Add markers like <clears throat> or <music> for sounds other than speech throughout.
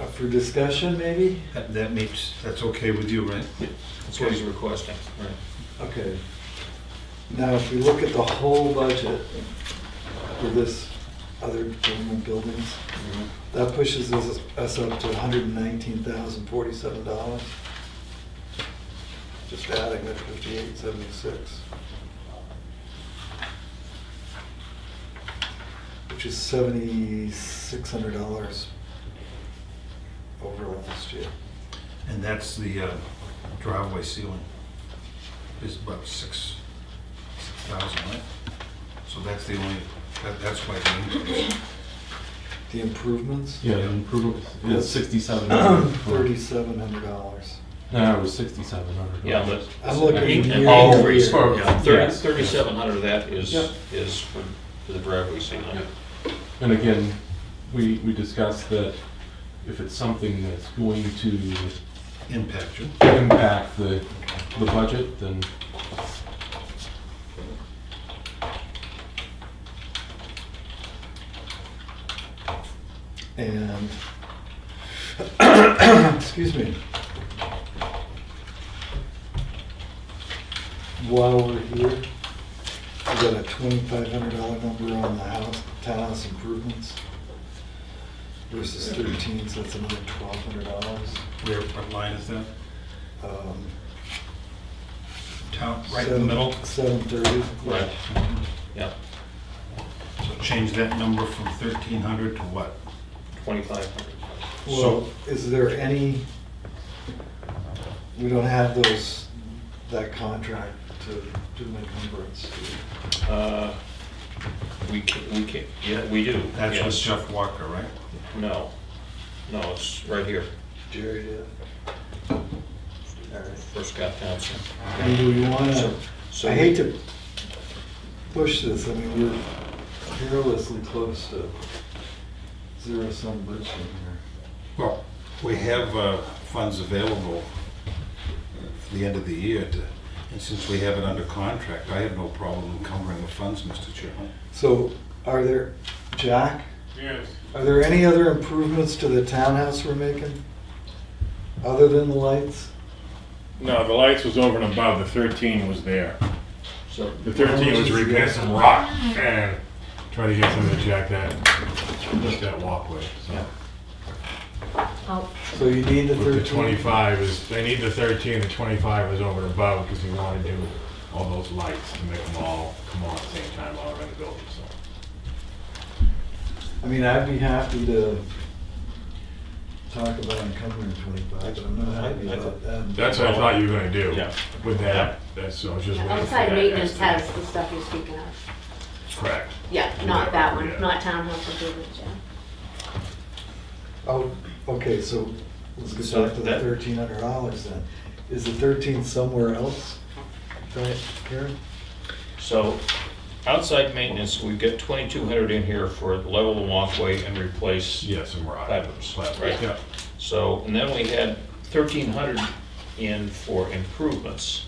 Uh, for discussion, maybe? That, that makes, that's okay with you, right? That's what he's requesting, right? Okay. Now, if we look at the whole budget for this other government buildings, that pushes us, us up to hundred and nineteen thousand forty-seven dollars. Just adding that fifty-eight seventy-six. Which is seventy-six hundred dollars over last year. And that's the uh, driveway ceiling is about six, six thousand, right? So that's the only, that, that's why the increase. The improvements? Yeah, the improvement is <clears throat> sixty-seven hundred. Thirty-seven hundred dollars. No, it was sixty-seven hundred. Yeah, but. I'm looking Yeah, year all to three- year. for- oh, yeah, Thirty, yes. thirty-seven hundred of that is, Yep. is for for the driveway ceiling. Yep. And again, we, we discussed that if it's something that's going to impact you. impact the, the budget, then And, excuse me. While we're here, we got a twenty-five hundred dollar number on the house, townhouse improvements versus thirteen, so that's another twelve hundred dollars. Um, Where, what line is that? Town, right in the middle? Seven thirty. Right, yeah, So change that number from thirteen hundred to what? twenty-five hundred. Well, is there any, we don't have those, that contract to do an encumbrance. Uh, We can, we can, yeah, we do. That's with yes. Jeff Walker, right? No, no, it's right here, Jerry did. All right. for Scott Thompson. I mean, do we wanna, So- so I hate to push this, I mean, we're perilously close to zero-sum budgeting here. Well, we have uh, funds available for the end of the year, to- and since we have it under contract, I have no problem encumbering the funds, Mr. Chairman. So, are there, Jack, Yes, are there any other improvements to the townhouse we're making? Other than the lights? no, the lights was over and above, the thirteen was there. So, The thirteen was repair some rock and try to get somebody to jack that, just that walkway, so. Oh, So you need the But the thirteen? twenty-five is, they need the thirteen, the twenty-five was over and above, because you wanna do all those lights to make them all come on at the same time all around the building, so. I mean, I'd be happy to talk about encumbering twenty-five, but I'm not happy about that. That's what I thought you were gonna do Yeah. with that, that's, so I was just waiting for that. Outside maintenance estimate. has the stuff you're speaking of. Correct. Yeah, not that one, Yeah. not townhouse improvements, yeah. Oh, okay, so let's get So back to the that- thirteen hundred dollars then. Is the thirteen somewhere else? Right, Karen? So, outside maintenance, we've got twenty-two hundred in here for level the walkway and replace. Yeah, some rock. Fibers, right? Yeah. So, and then we had thirteen hundred in for improvements.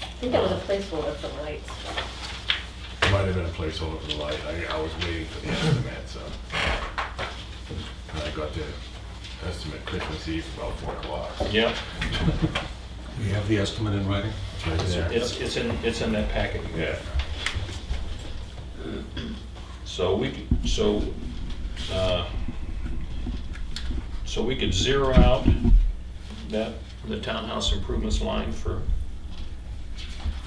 I think that was a placeholder for the lights. Might have been a placeholder for the light, I, I was waiting for the estimate, so. And I got the estimate Christmas Eve about four o'clock. Yep. We have the estimate in writing? Right there. It's, it's in, it's in that packet. you got. Yeah, So we, could- so, uh, so we could zero out that, the townhouse improvements line for,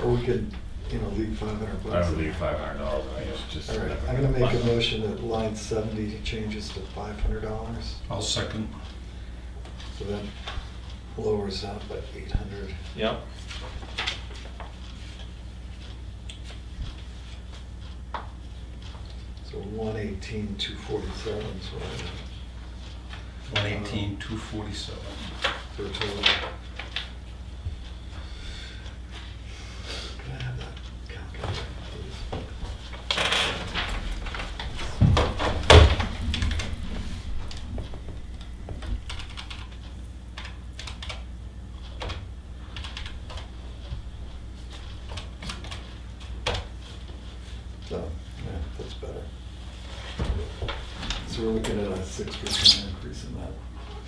Or we could, you know, leave five hundred bucks. I would leave five hundred dollars, I guess, just. All right, I'm gonna make a motion that line seventy changes to five hundred dollars, I'll second. so that lowers that by eight hundred. yep. So one eighteen, two forty-seven, so I- One eighteen, two forty-seven. for a total. Can I have that calculator, please? So, yeah, that's better. So we're looking at a six percent increase in that.